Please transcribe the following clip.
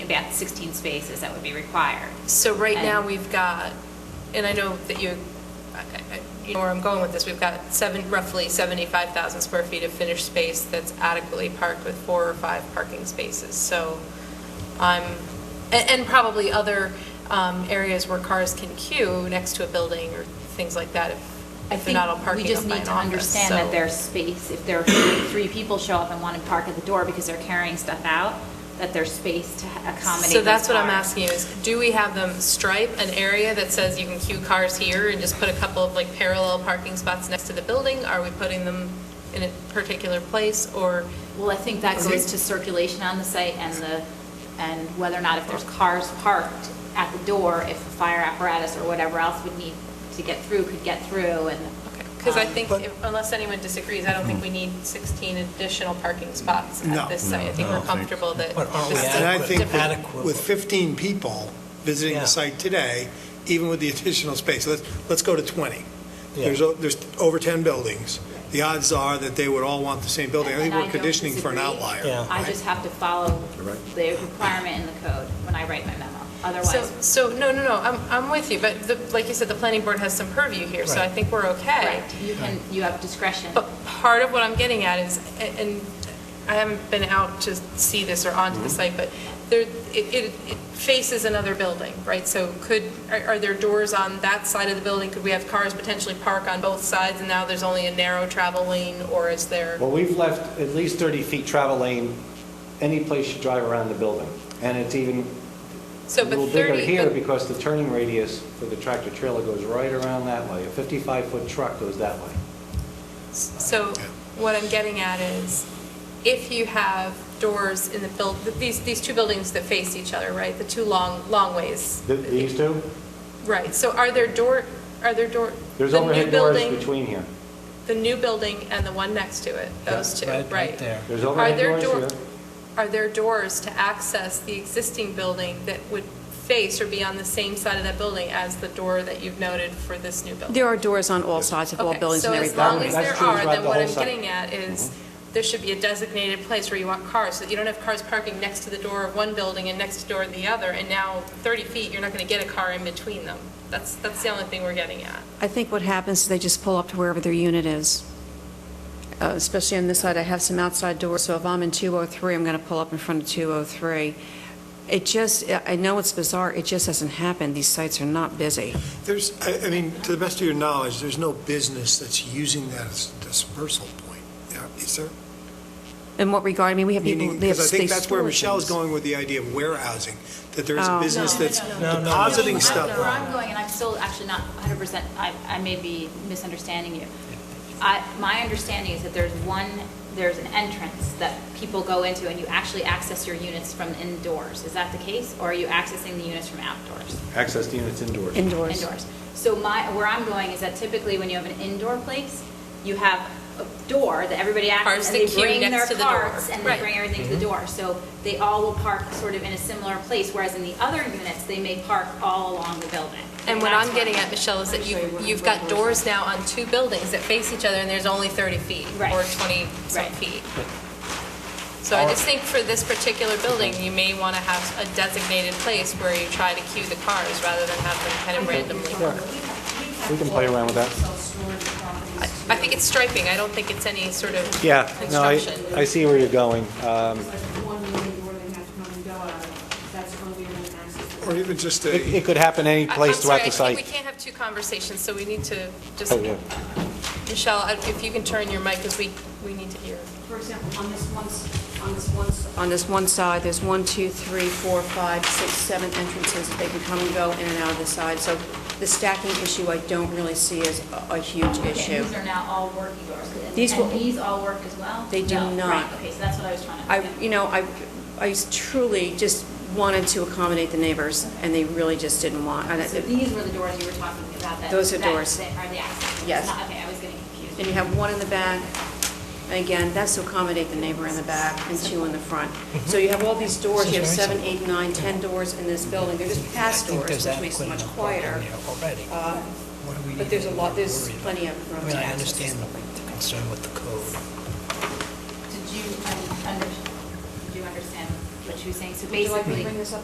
that 16 spaces that would be required. So right now, And- we've got, and I know that you, I- I- you know where I'm going with this, we've got seven, roughly 75,000 square feet of finished space that's adequately parked with four or five parking spaces. So I'm, and and probably other um, areas where cars can queue next to a building or things like that, if- I if they're think not all parking we up just by need an to office, understand that so- there's space, if there are three three people show up and want to park at the door because they're carrying stuff out, that there's space to accommodate So that's those what I'm cars. asking you, is do we have them stripe an area that says you can queue cars here and just put a couple of like parallel parking spots next to the building? Are we putting them in a particular place or, Well, I think that goes to circulation on the site and the, and whether or not if there's cars parked at the door, if a fire apparatus or whatever else would need to get through, could get through and. um, because Um, I think, if- unless anyone disagrees, I don't think we need 16 additional parking spots No. at this site. I No, I think we're don't think- comfortable that. But aren't we this- And I Adequate. think with- Adequate. with 15 people visiting the Yeah. site today, even with the additional space, let's, let's go to 20. Yeah. There's, o- there's over 10 buildings. The odds are that they would all want the same building. I And think we're don't conditioning for an disagree. outlier. Yeah. I right? just have to follow the requirement in the code when I write my memo. So, Otherwise, so, no, no, no, I'm, I'm with you, but the- like you said, the planning board has some purview here, so I Right. think we're okay. correct, you can, you have discretion. But part of what I'm getting at is, and I haven't been out to see this or Mm-hmm. onto the site, but there, it, it it faces another building, right? So could, are are there doors on that side of the building? Could we have cars potentially park on both sides and now there's only a narrow travel lane or is there? Well, we've left at least 30 feet travel lane, any place you drive around the building. And it's even a So, but little bigger 30, here but- because the turning radius for the tractor trailer goes right around that way. A 55-foot truck goes that way. So what I'm getting at is, if you have doors in the build, these, these two buildings that face each other, right? The two long, long ways. Th- These two, Right, so are there door, are there door? there's the new overhead doors building- between here. The new building and the one next to it, those two, right? Right there. There's Are overhead there doors door, here. are there doors to access the existing building that would face or be on the same side of that building as the door that you've noted for this new building? There are doors on all sides of all Okay, buildings and everything. So as long as That's there true are, throughout then the what whole I'm site. Mm-hmm. getting at is, there should be a designated place where you want cars, so that you don't have cars parking next to the door of one building and next door of the other, and now 30 feet, you're not going to get a car in between them. That's, that's the only thing we're getting at. I think what happens is they just pull up to wherever their unit is. Uh, Especially on this side, I have some outside doors, so if I'm in 203, I'm going to pull up in front of 203. It just, I- I know it's bizarre, it just hasn't happened. These sites are not busy. There's, I, I mean, to the best of your knowledge, there's no business that's using that as a dispersal point, Yeah, is there? In what regard, I mean, we have people, Meaning, they have because I space think that's where storage Michelle's things. going with the idea of warehousing, that there is Oh. a No, business that's no, no. depositing That's stuff. Where I'm going, and I'm still actually not 100%, I, I may be misunderstanding you. I, my understanding is that there's one, there's an entrance that people go into, and you actually access your units from indoors. Is that the case, or are you accessing the units from outdoors? Access to units indoors. Indoors. Indoors. So my, where I'm going is that typically when you have an indoor place, you have a door that everybody Cars acts, and that they queue bring next their to the door. carts, and they Right. bring everything to the door. So they all will park sort of in a similar place, whereas in the other units, they may park all along the building. And what that's I'm getting at, Michelle, is that you, you've got doors now on two buildings that face each other, and there's only 30 feet, Right. or 20-some Right. feet. So I just think for this particular building, you may want to have a designated place where you try to queue the cars, rather than have them kind of randomly. We can play around with that. I think it's striping, I don't think it's any sort of Yeah, no, I, construction. Uh, I see where you're going. It's like one main door they have to come and go out of. That's the only way they can access it. Or even just It a, it could happen any I- I'm place sorry, throughout the I think we site. can't have two conversations, so we need to just, Oh, yeah. Michelle, I- if you can turn your mic, because we, we need to hear. For example, on this one, s- on this one, s- On this one side, there's one, two, three, four, five, six, seven entrances that they can come and go in and out of the side. So the stacking issue, I don't really see as a a huge Okay, issue. and These are now all working doors. And- These will- And these all work as well? They do No, not. Right, okay, so that's what I was trying to. I, you know, I, I truly just wanted to accommodate the neighbors, and they really just didn't want, and So it- these were the doors you were talking about that. Those are that- doors. that Are the access. Yes. Not- Okay, I was getting confused. and you have one in the back, and again, that's to accommodate the neighbor in the back, and two in the front. So you have all these doors, you have This is very seven, eight, nine, ten doors in this building, they're just past I think doors, there's which makes adequate it much enough room quieter. there Already. Uh, What do we But need there's to a lot, there's worry about? plenty of I room mean, to I access this understand building. the concern with the code. Did you, um, under, did you understand what she was saying? So would you like me to basically, bring this up